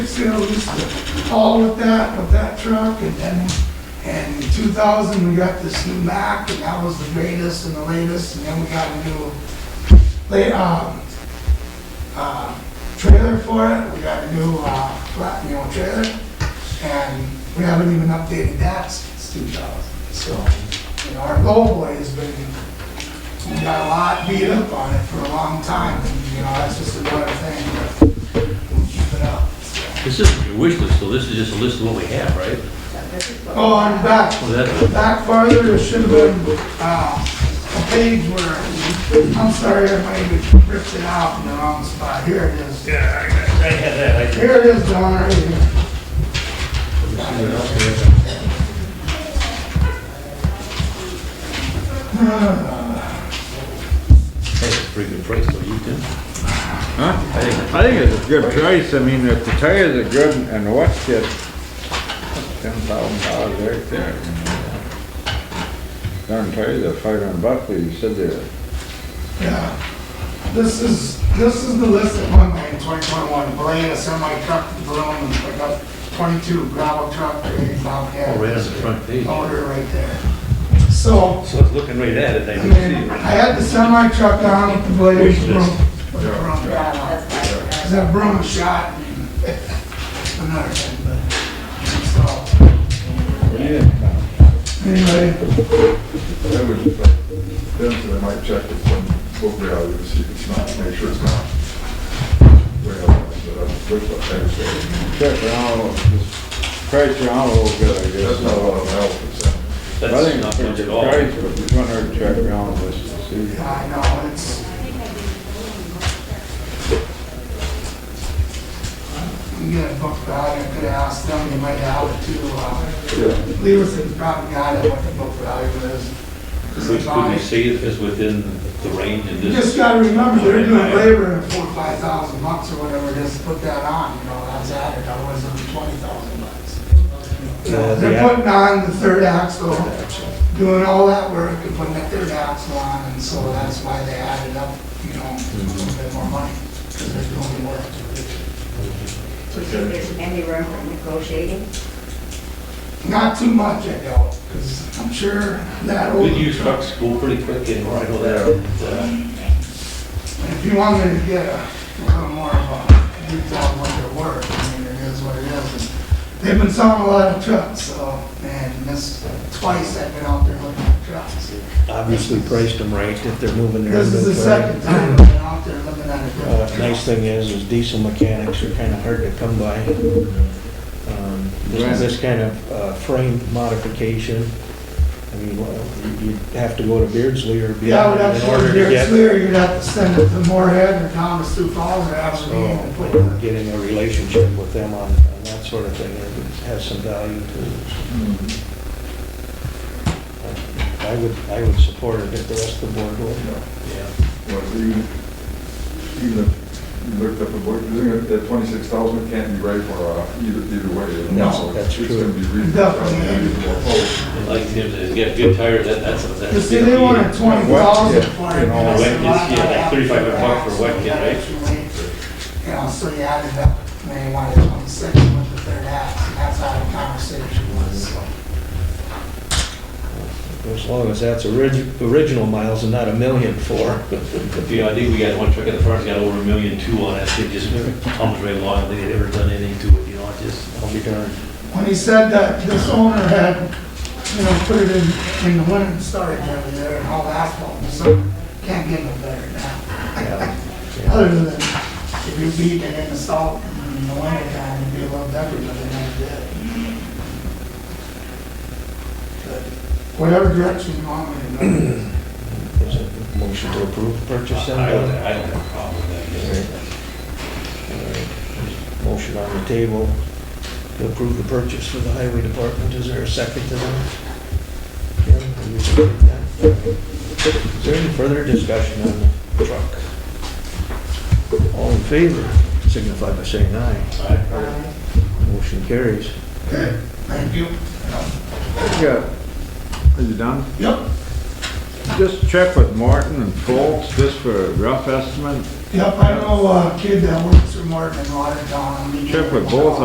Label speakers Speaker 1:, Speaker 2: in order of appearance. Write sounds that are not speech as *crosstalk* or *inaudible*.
Speaker 1: sales, all with that, with that truck, and then, and in two thousand, we got this new Mac, and that was the greatest and the latest, and then we got a new, lay, um, uh, trailer for it, we got a new, uh, flat, you know, trailer, and we haven't even updated that since two thousand, so, you know, our goal boy has been, we got a lot beat up on it for a long time, and, you know, that's just another thing, but we'll keep it up, so.
Speaker 2: This isn't your wish list, though, this is just a list of what we have, right?
Speaker 1: Oh, I'm back,
Speaker 2: Well, that-
Speaker 1: back farther, there should have been, uh, a page where, I'm sorry, I might have ripped it out in the wrong spot, here it is. Yeah, I had that. Here it is, John, right here.
Speaker 2: That's a pretty good price, though, you can.
Speaker 3: Huh? I think it's a good price, I mean, if the tires are good and the watch gets ten thousand dollars right there. you know. Darn tires are five hundred bucks, but you said they're,
Speaker 1: Yeah. This is, this is the list that won me in twenty twenty-one, Blaine, a semi truck, balloon, and pickup, twenty-two gravel truck, eighty Bobcat.
Speaker 2: Oh, right on the front page.
Speaker 1: Motor right there. So,
Speaker 2: So it's looking right at it, I
Speaker 1: I
Speaker 2: can
Speaker 1: mean,
Speaker 2: see
Speaker 1: I
Speaker 2: it.
Speaker 1: had the semi truck on with the blade,
Speaker 2: Wish
Speaker 1: broom,
Speaker 2: list.
Speaker 1: with the broom pad on. Cause that broom was shot and another thing, but, so, anyway,
Speaker 4: I would, then I might check with some book value to see if it's not, make sure it's not. Well, but I'm with what they're saying.
Speaker 3: check around, just price around a little bit, I guess.
Speaker 4: That's not a lot of help, it's,
Speaker 3: I
Speaker 2: That's
Speaker 3: think
Speaker 2: not
Speaker 3: it's a
Speaker 2: much at
Speaker 3: good
Speaker 2: all.
Speaker 3: price, but you want to check around just to see.
Speaker 1: yeah, I know, it's. You get a book value, I could ask them, they might have it too, uh,
Speaker 4: yeah,
Speaker 1: Lewison's probably got it, what the book value is.
Speaker 2: Which could we see it is within the range in
Speaker 1: You
Speaker 2: this?
Speaker 1: just gotta remember, they're doing labor in four, five thousand bucks or whatever it is, to put that on, you know, that's added, otherwise it's twenty thousand bucks.
Speaker 2: No, Uh, the
Speaker 1: They're
Speaker 2: app-
Speaker 1: putting on the third axle, doing all that work and putting that third axle on, and so that's why they added up, you know, a little
Speaker 2: Mm-hmm.
Speaker 1: bit more money, because they're doing the work.
Speaker 5: Do you think there's any room for negotiating?
Speaker 1: Not too much, I doubt, because I'm sure that old.
Speaker 2: Good used trucks go pretty quick anymore, I know that. Uh,
Speaker 1: If you want me to get a little more of a detail on what they're worth, I mean, it is what it is. And They've been selling a lot of trucks, so, and this, twice I've been out there looking at trucks.
Speaker 6: obviously priced them right if they're moving their
Speaker 1: This is the
Speaker 6: inventory.
Speaker 1: second time I've been out there looking at a
Speaker 6: Uh,
Speaker 1: truck.
Speaker 6: Nice thing is, is diesel mechanics are kind of hard to come by. Um,
Speaker 3: Right.
Speaker 6: This this kind of uh, frame modification, I mean, well, you- you'd have to go to Beardsley or
Speaker 1: Yeah, I would
Speaker 6: beyond
Speaker 1: have
Speaker 6: in
Speaker 1: to go
Speaker 6: order
Speaker 1: to
Speaker 6: to
Speaker 1: Deer
Speaker 6: get,
Speaker 1: Clear, you'd have to send it to Moorhead or Thomas Sioux Falls or Aberdeen and put
Speaker 6: so
Speaker 1: it.
Speaker 6: getting a relationship with them on on that sort of thing it has some value to it. I would, I would support it if the rest of the board would. Yeah.
Speaker 4: well, even, even if you looked up the book, you think that twenty-six thousand can't be right for, uh, either, either way.
Speaker 6: No, that's
Speaker 4: It's gonna
Speaker 6: true.
Speaker 4: be reasonable.
Speaker 2: *laughs*
Speaker 1: Definitely.
Speaker 4: Oh,
Speaker 2: and Like Tim says, you got good tires, that, that's, that's.
Speaker 1: You see, they wanted twenty thousand
Speaker 4: Yeah,
Speaker 1: for it.
Speaker 4: you know,
Speaker 1: and I said,
Speaker 2: wet
Speaker 1: "Well,
Speaker 2: kids, yeah,
Speaker 1: I
Speaker 2: like
Speaker 1: have
Speaker 2: 3,500
Speaker 1: to
Speaker 2: bucks for wet
Speaker 1: actually
Speaker 2: kid, right?
Speaker 1: actually, You know, so you added up, and then you wanted twenty-six with the third half, and that's how the conversation was, so.
Speaker 6: As long as that's orig- original miles and not a million four.
Speaker 2: You know, I think we got one truck in the farm's got over a million two on it, it just comes right along, they had ever done anything to it, you know, it just.
Speaker 6: I'll be darned.
Speaker 1: When he said that this owner had, you know, put it in, in the winter and started over there and all asphalt, so can't get no better now. Other than if you beat it in the salt in the winter time, it'd be a little better, but it ain't good. But Whatever direction you want me to go.
Speaker 6: Is it a motion to approve the purchase then?
Speaker 2: I don't, I don't have a problem with that.
Speaker 6: Motion on the table to approve the purchase for the highway department. Is there a second to that? Kim, will you second that? Is there any further discussion on the truck? All in favor, signify by saying aye.
Speaker 2: All right.
Speaker 6: Motion carries.
Speaker 1: Thank you.
Speaker 3: Yeah. Are you done?
Speaker 1: Yep.
Speaker 3: Just check with Morton and Foltz, just for a rough estimate.
Speaker 1: Yep, I know a uh, kid that works
Speaker 7: Mr. Morton and water down. on me.
Speaker 1: Check with both